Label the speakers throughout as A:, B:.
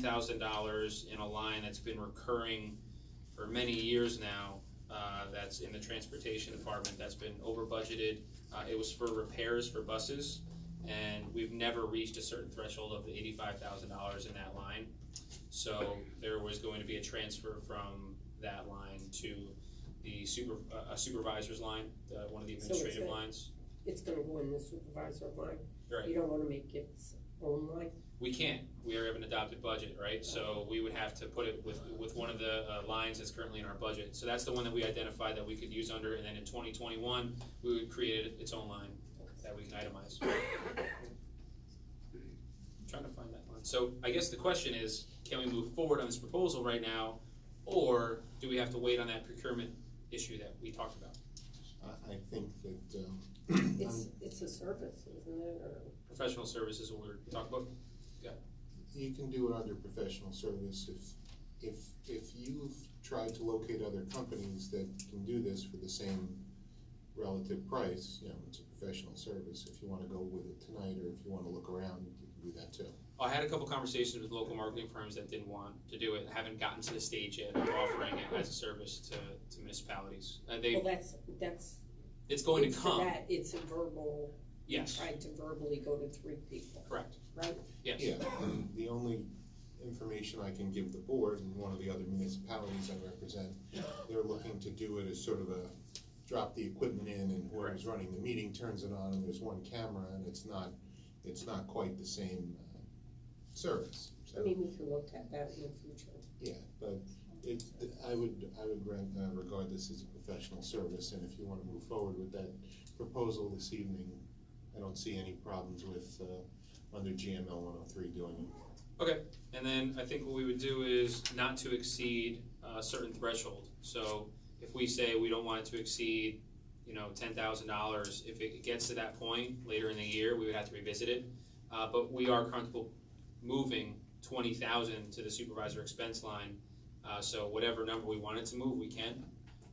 A: thousand dollars in a line that's been recurring for many years now. Uh, that's in the transportation department, that's been over budgeted. Uh, it was for repairs for buses. And we've never reached a certain threshold of eighty-five thousand dollars in that line. So there was going to be a transfer from that line to the super, uh, a supervisor's line, uh, one of the
B: So it's
A: administrative
B: a-
A: lines.
B: it's gonna go in the supervisor line.
A: Right.
B: You don't wanna make it its own line.
A: We can't, we have an adopted budget, right? So we would have to put it with, with one of the uh, lines that's currently in our budget. So that's the one that we identified that we could use under, and then in twenty twenty-one, we would create its own line that we can itemize. Trying to find that line. So I guess the question is, can we move forward on this proposal right now? Or do we have to wait on that procurement issue that we talked about?
C: I, I think that, um,
B: It's,
C: I'm-
B: it's a service, isn't it, or?
A: Professional services, what we were talking about?
C: you can do it under professional service if, if, if you've tried to locate other companies that can do this for the same relative price, you know, it's a professional service, if you wanna go with it tonight, or if you wanna look around, you can do that too.
A: I had a couple conversations with local marketing firms that didn't want to do it, haven't gotten to the stage yet of offering it as a service to, to municipalities. Uh,
B: Well,
A: they,
B: that's, that's.
A: it's going
B: it's
A: to
B: for
A: come,
B: that, It's a verbal,
A: yes,
B: tried to verbally go to three people,
A: correct,
B: right?
A: yes.
C: Yeah, and the only information I can give the board and one of the other municipalities I represent, they're looking to do it as sort of a, drop the equipment in and whoever's running the meeting turns it on and there's one camera and it's not, it's not quite the same uh, service.
B: I
C: So,
B: mean, we can look at that in the future.
C: yeah, but it, I would, I would reg- uh, regard this as a professional service and if you wanna move forward with that proposal this evening, I don't see any problems with, uh, under GML one oh three doing it.
A: And then I think what we would do is not to exceed a certain threshold. So if we say we don't want it to exceed, you know, ten thousand dollars, if it gets to that point later in the year, we would have to revisit it. Uh, but we are comfortable moving twenty thousand to the supervisor expense line. Uh, so whatever number we wanted to move, we can.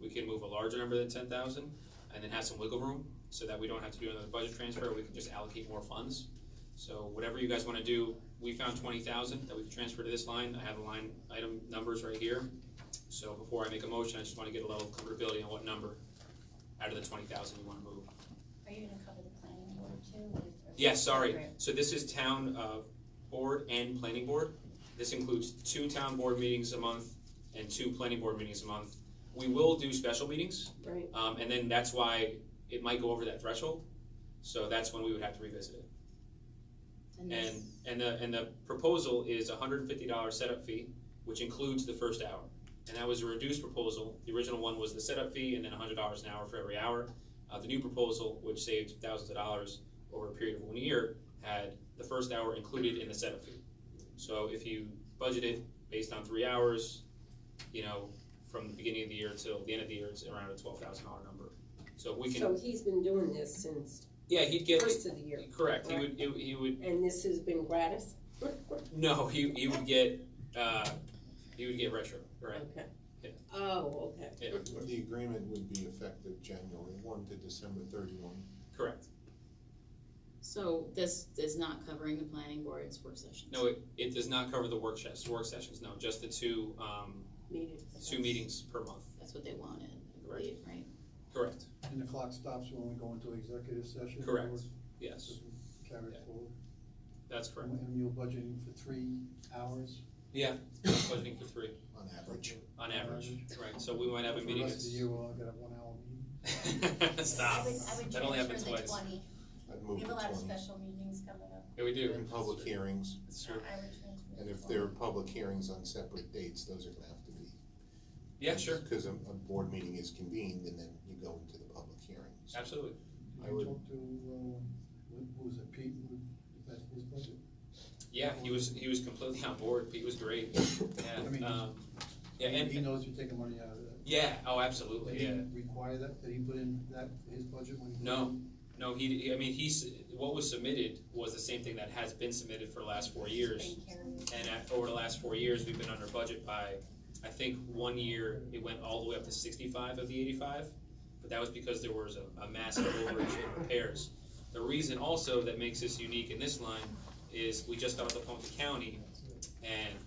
A: We can move a larger number than ten thousand and then have some wiggle room so that we don't have to do another budget transfer. We can just allocate more funds. So whatever you guys wanna do, we found twenty thousand that we can transfer to this line, I have the line item numbers right here. So before I make a motion, I just wanna get a level of comfortability on what number out of the twenty thousand you wanna move.
D: Are you gonna cover the planning board too? with- or-
A: Yes, sorry, so this is town, uh, board and planning board. This includes two town board meetings a month and two planning board meetings a month. We will do special meetings,
B: Right,
A: um, and then that's why it might go over that threshold, so that's when we would have to revisit it.
D: this-
A: And, and the, and the proposal is a hundred and fifty dollar setup fee, which includes the first hour. And that was a reduced proposal, the original one was the setup fee and then hundred dollars an hour for every hour. Uh, the new proposal, which saved thousands of dollars over a period of one year, had the first hour included in the setup fee. So if you budget it based on three hours, you know, from the beginning of the year till the end of the year, it's around a twelve thousand dollar number. So we can,
B: so he's been doing this since
A: yeah, he'd get,
B: first of the year,
A: correct, he would, he would
B: and this has been gratis?
A: No, he, he would get uh, he would get retro, right?
B: Okay.
A: Yeah.
B: Oh, okay.
A: Yeah,
C: The agreement would be effective January one to December thirty-one.
A: correct.
E: So this is not covering the planning board's work sessions?
A: No, it, it does not cover the work sessions. Work sessions, no, just the two um,
B: Meetings.
A: two meetings per month.
E: That's what they wanted, I believe, right?
A: Correct.
F: And the clock stops when we go into executive session?
A: Correct.
F: Or
A: Yes,
F: does it Carry
A: Yeah.
F: it forward?
A: that's correct.
F: And you're budgeting for three hours?
A: Yeah, budgeting for three
C: On average.
A: on average. Right. So we might have a
F: For
A: meeting.
F: The rest of the year, we'll all get a one-hour meeting.
A: that's- Stop.
D: I would, I would
A: That only happened
D: transfer the
A: twice.
D: twenty.
C: I'd
D: We
C: move to
D: have a lot of
C: twenty.
D: special meetings coming up.
A: Yeah, we do.
C: And public hearings,
A: That's
D: so
A: true.
D: I would transfer.
C: and
D: the
C: if
D: 20.
C: there are public hearings on separate dates, those are gonna have to be.
A: Yeah, sure.
C: Cause a, a board meeting is convened and then you go into the public hearings.
A: Absolutely.
C: I
F: Did you
C: would-
F: talk to, uh, who was it, Pete? Is that his budget?
A: Yeah, he was he was completely on board. Pete was great.
F: I
A: Yeah.
F: mean,
A: Um, yeah,
F: He
A: and
F: knows you're taking money out of that.
A: yeah. Oh,
F: Did
A: absolutely.
F: he
A: Yeah.
F: Require that, did he put in that, for his budget when he? put
A: No.
F: in?
A: No, he, I mean, he's, what was submitted was the same thing that has been submitted for the last four years.
D: It's been carried.
A: And at, over the last four years, we've been under budget by, I think, one year, it went all the way up to sixty-five of the eighty-five. But that was because there was a, a massive overage in repairs. The reason also that makes this unique in this line is we just got off the phone with the county and